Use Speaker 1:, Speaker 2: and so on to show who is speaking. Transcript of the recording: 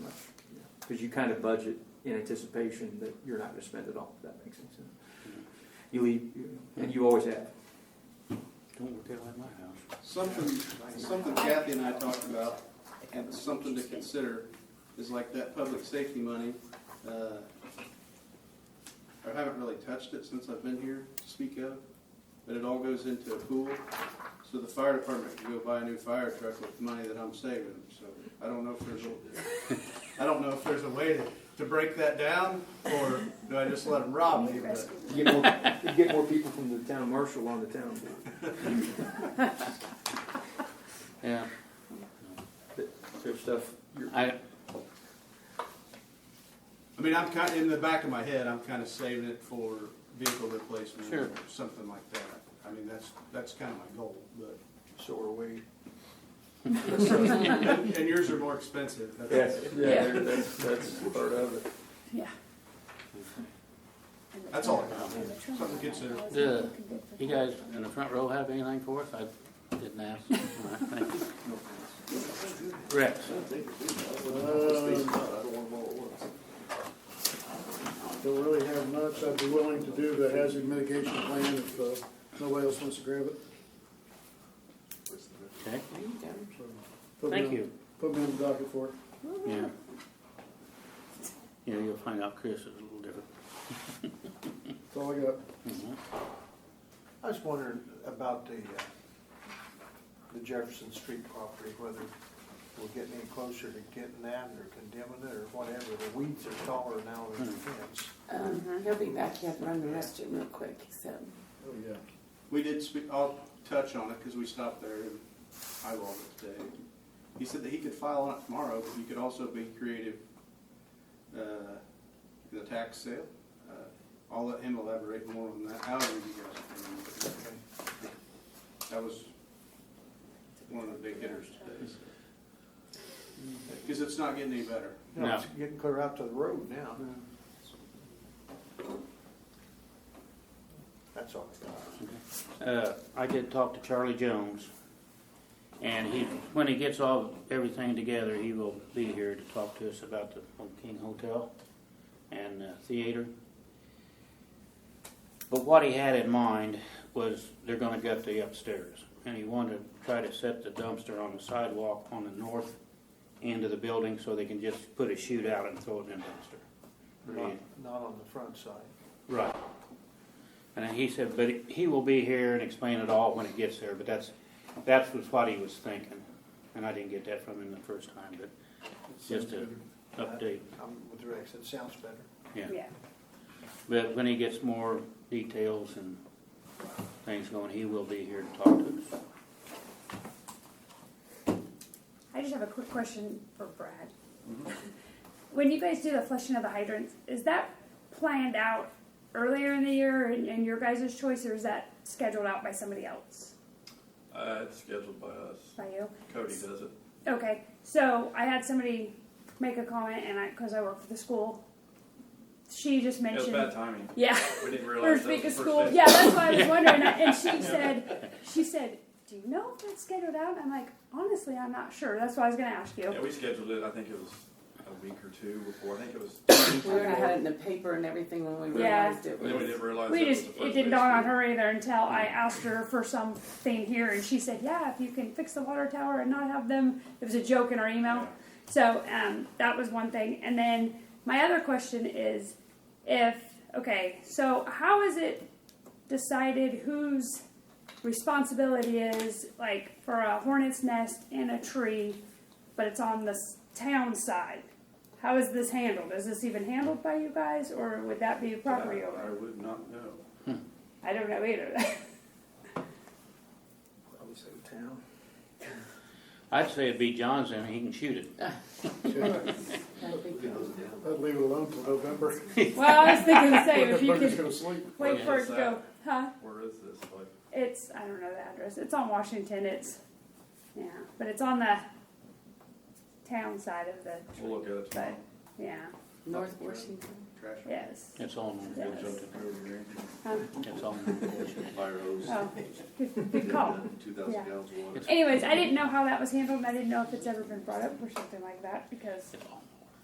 Speaker 1: because you kind of budget in anticipation that you're not going to spend it all. If that makes any sense. You leave, you know, and you always have.
Speaker 2: Don't work out like my house.
Speaker 3: Something, something Kathy and I talked about, and something to consider, is like that public safety money. uh, I haven't really touched it since I've been here, to speak of, but it all goes into a pool. So the fire department can go buy a new fire truck with the money that I'm saving them, so I don't know if there's a, I don't know if there's a way to, to break that down, or do I just let them rob me? but-
Speaker 1: You get more, you get more people from the town marshal on the town board.
Speaker 2: Yeah,
Speaker 1: There's stuff.
Speaker 2: I,
Speaker 3: I mean, I'm kind of, in the back of my head, I'm kind of saving it for vehicle replacement
Speaker 2: Sure.
Speaker 3: or something like that. I mean, that's, that's kind of my goal, but,
Speaker 1: So are we.
Speaker 3: and and yours are more expensive. that's-
Speaker 4: Yeah.
Speaker 1: there- That's, that's part of it.
Speaker 4: Yeah.
Speaker 3: That's all I got. Something to consider.
Speaker 2: the, you guys in the front row have anything for us? I didn't ask. All right, thank you. Rex,
Speaker 5: Don't really have much. I'd be willing to do the hazard mitigation plan if uh, nobody else wants to grab it.
Speaker 2: okay,
Speaker 5: So, put me
Speaker 2: thank
Speaker 5: on-
Speaker 2: you.
Speaker 5: Put me on the docket for it.
Speaker 2: Yeah. Yeah, you'll find out Chris is a little different.
Speaker 5: That's all I got.
Speaker 2: Mhm.
Speaker 6: I was wondering about the, uh, the Jefferson Street property, whether we're getting any closer to getting that or condemning it or whatever. The weeds are taller now than the
Speaker 2: Hmm.
Speaker 6: fence.
Speaker 4: Um, he'll be back, he had to run the restroom real quick, so.
Speaker 5: Oh, yeah.
Speaker 3: We did speak, I'll touch on it because we stopped there and eyeballed it today. He said that he could file on it tomorrow, but you could also be creative, uh, in the tax sale. Uh, I'll let him elaborate more on that, however you guys. can. That was one of the big hitters today. Because it's not getting any better.
Speaker 6: You know, It's getting clear out to the road now.
Speaker 2: Hmm.
Speaker 6: That's all I got.
Speaker 2: Uh, I did talk to Charlie Jones, and he, when he gets all, everything together, he will be here to talk to us about the Old King Hotel and the theater. But what he had in mind was they're gonna gut the upstairs, and he wanted to try to set the dumpster on the sidewalk on the north end of the building so they can just put a chute out and throw it in the dumpster.
Speaker 6: Not, not on the front side.
Speaker 2: Right. And then he said, but he will be here and explain it all when it gets there, but that's, that's was what he was thinking. And I didn't get that from him the first time, but just a update,
Speaker 6: I'm with Rex, it sounds better.
Speaker 2: yeah. But when he gets more details and things going, he will be here to talk to us.
Speaker 7: I just have a quick question for Brad. When you guys do the flushing of the hydrants, is that planned out earlier in the year and, and your guys' choice, or is that scheduled out by somebody else?
Speaker 8: Uh, it's scheduled by us.
Speaker 7: By you?
Speaker 8: Cody does it.
Speaker 7: Okay, so I had somebody make a comment, and I, because I work for the school, she just
Speaker 8: It was
Speaker 7: mentioned.
Speaker 8: bad timing.
Speaker 7: Yeah.
Speaker 8: We didn't realize
Speaker 7: First
Speaker 8: that was
Speaker 7: week
Speaker 8: the
Speaker 7: of
Speaker 8: first
Speaker 7: school.
Speaker 8: day.
Speaker 7: Yeah, that's why I was wondering. And she said, she said, do you know if that's scheduled out? I'm like, honestly, I'm not sure. That's why I was going to ask you.
Speaker 8: Yeah, we scheduled it, I think it was a week or two before, I think it was,
Speaker 4: We already had it in the paper and everything when we
Speaker 7: Yeah.
Speaker 4: realized it
Speaker 8: then we
Speaker 4: was.
Speaker 8: didn't realize.
Speaker 7: We
Speaker 8: it was
Speaker 7: just,
Speaker 8: the first
Speaker 7: it
Speaker 8: day of
Speaker 7: didn't dawn on
Speaker 8: school.
Speaker 7: her either until I asked her for something here, and she said, yeah, if you can fix the water tower and not have them, it was a joke in our email. So, um, that was one thing, and then my other question is, if, okay, so how is it decided whose responsibility is, like, for a hornet's nest in a tree, but it's on the s- town side? How is this handled? Is this even handled by you guys, or would that be a property owner?
Speaker 8: I would not know.
Speaker 7: I don't know either.
Speaker 1: I would say town.
Speaker 2: I'd say it'd be John's and he can shoot it.
Speaker 4: That'd be good.
Speaker 5: I'd leave it alone till November.
Speaker 7: well, I was thinking the same. If you
Speaker 5: Everybody's
Speaker 7: could
Speaker 5: gonna sleep.
Speaker 7: wait for it to
Speaker 8: Where is
Speaker 7: go, huh?
Speaker 8: Where is this, like,
Speaker 7: It's I don't know the address. It's on Washington. It's yeah, but it's on the town side of the.
Speaker 8: we'll look at it
Speaker 7: But
Speaker 8: tomorrow.
Speaker 7: yeah,
Speaker 4: North Washington.
Speaker 3: Trash.
Speaker 7: yes.
Speaker 2: It's on,
Speaker 7: Yes.
Speaker 2: it's on.
Speaker 7: Oh, good, good call.
Speaker 3: uh, Two
Speaker 7: Yeah.
Speaker 3: gallons of water.
Speaker 7: Anyways, I didn't know how that was handled, and I didn't know if it's ever been brought up or something like that because